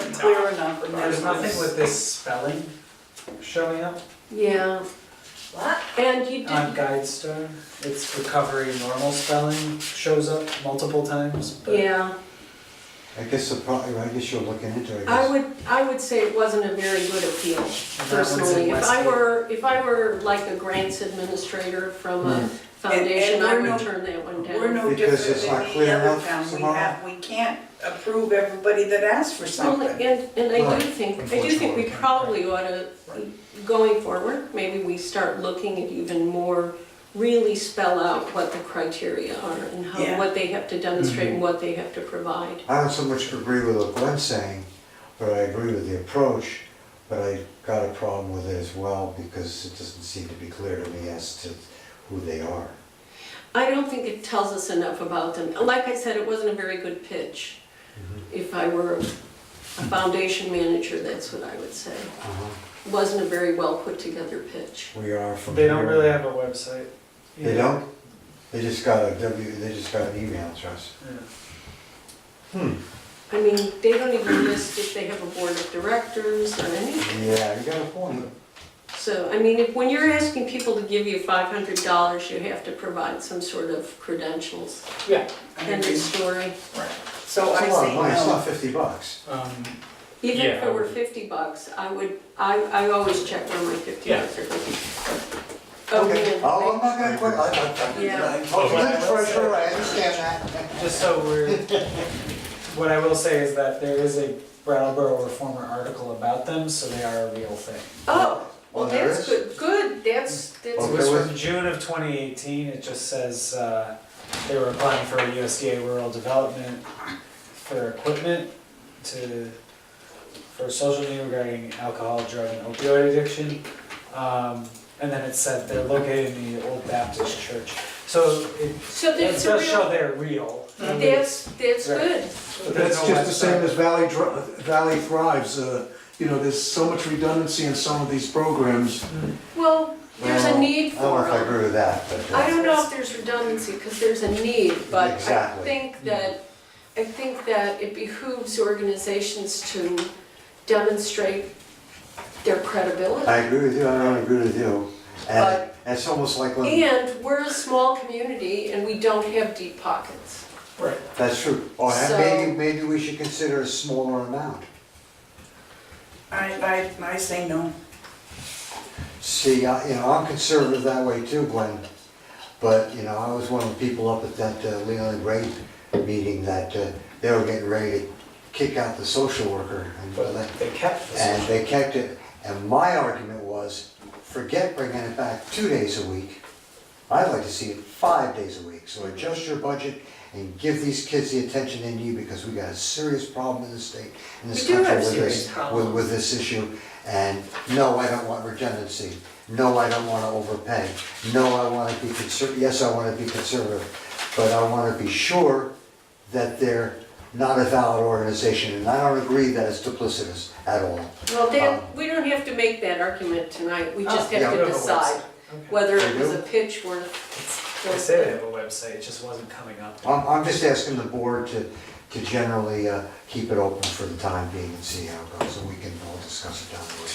on for There's nothing with this spelling showing up Yeah, What? and you on did, GuideStar. It's recovery normal spelling shows up multiple times, but yeah, I guess the pro, I guess you're looking into it, I I guess. would, I would say it wasn't a very good appeal that one's in personally. If Westgate. I were, if I were like a grants administrator from a foundation, Hmm. And- and I we're no- would turn that one down. We're no Because different it's not than any clear other enough town. We tomorrow. have, we can't approve everybody that asks for Well, something. and, and I Right, do think, I do think unfortunately, we probably ought to, Right. going forward, maybe we start looking at even more, really spell out what the criteria are and Yeah. Mm-hmm. how, what they have to demonstrate and what they have to provide. I don't so much agree with what Glenn's saying, but I agree with the approach, but I got a problem with it as well, because it doesn't seem to be clear to me as to who they are. I don't think it tells us enough about them. Like I said, it wasn't a very good pitch. Mm-hmm. If I were a foundation manager, that's what I would say. Uh-huh. Wasn't a very well put together pitch. We are from they don't here. really have a website. They Yeah. don't? They just got a W, they just got an email address. Yeah. I mean, they don't even list if they have a board of directors or anything. Yeah, you got a point. So, I mean, if, when you're asking people to give you five hundred dollars, you have to provide some sort of credentials Yeah. and a story. Oh, So It's I a lot of say money, it's not no. fifty bucks. Um, Even if Yeah, I it were would- fifty bucks, I would, I, I always check where my fifty Yeah. bucks are going. Oh, man. Oh, I'm not gonna quit, I, Yeah. I, I, I'm Okay. the treasurer, I understand that. Just so we're, what I will say is that there is a Brattleboro Reformer article about them, so they are a real thing. Oh, well, Well, there that's is. good, good, that's, It Okay. that's, was with- from June of 2018, it just says uh, they were applying for a USDA rural development for equipment to, for social need regarding alcohol, drug, and opioid addiction. Um, And then it said they're located in the Old Baptist Church. So it so it that's a does show real, they're real. I mean, that's, that's Right. good. but there's That's no just the same website. as Valley, Dr- Valley Thrives, uh, you know, there's so much redundancy in some of these programs. Well, there's a Well, need I don't know for if I them. agree with that, but. uh, I don't know if there's redundancy, because there's a need, but I Exactly. think that, I think that it behooves organizations to demonstrate their credibility. I agree with you, I don't agree with you. And But- it's almost like when, And we're a small community and we don't have deep pockets. Right. that's true. Or ha- So- maybe, maybe we should consider a smaller amount. I, I, I say no. See, I, you know, I'm conservative that way too, Glenn. But, you know, I was one of the people up at that uh, Leland Ray meeting that uh, they were getting ready to kick out the social worker. and all that. But they kept this. And they kept it, and my argument was, forget bringing it back two days a week. I'd like to see it five days a week, so adjust your budget and give these kids the attention they need, because we got a serious problem in the state, in this We do have country with serious this, with, problems. with this issue. And no, I don't want redundancy, no, I don't wanna overpay, no, I wanna be conserv, yes, I wanna be conservative, but I wanna be sure that they're not a valid organization, and I don't agree that it's duplicitous at all. Well, Dan, Dan, we don't have to make that argument tonight, we just Oh, have Oh. yeah. to decide Okay. whether it We was do? a pitch worth. They say they have a website, it just wasn't coming up. I'm, I'm just asking the board to, to generally uh, keep it open for the time being and see how it goes, and we can all discuss it down the road.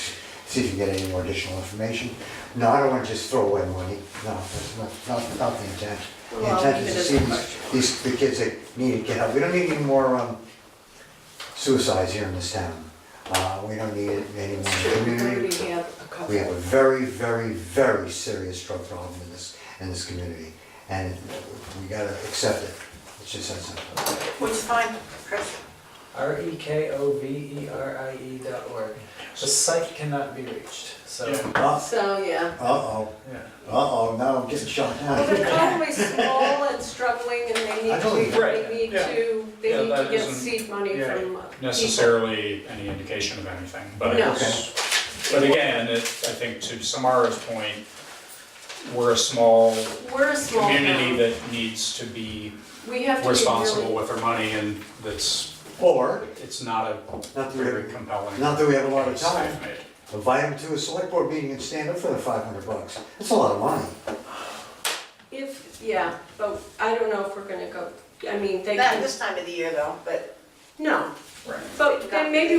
See if you get any more additional information. No, I don't want to just throw away money, no, that's not, not, not the intent. The Well, intent is it to is see a these, question. these, the kids that need to get help. We don't need any more um, suicides here in this town. Uh, We don't need any more We community. already have a couple. We have a very, very, very serious drug problem in this, in this community, and we gotta accept it. It's just that simple. Which is fine, Chris. R E K O V E R I E dot org. The site cannot be reached, so. Yeah. Uh, So, yeah. Uh-oh, yeah. uh-oh, now I'm getting shot Well, they're down. probably small and struggling and they Uh, I need totally- to, Right, they need yeah. to, Yeah, they need to that get isn't- seed money yeah, from. uh, necessarily any indication of anything, but No. it's, but again, it, I think to Samara's point, we're a small people. We're a small community town. that needs to be We have to be responsible really. with our money and that's, Or, it's not a Not that we- very compelling. not that we have a lot of case they've time. made. invite them to a select board meeting and stand up for the five hundred bucks. That's a lot of money. If, yeah, but I don't know if we're gonna go, I mean, they Not can, this time of the year though, but no. Right. But then maybe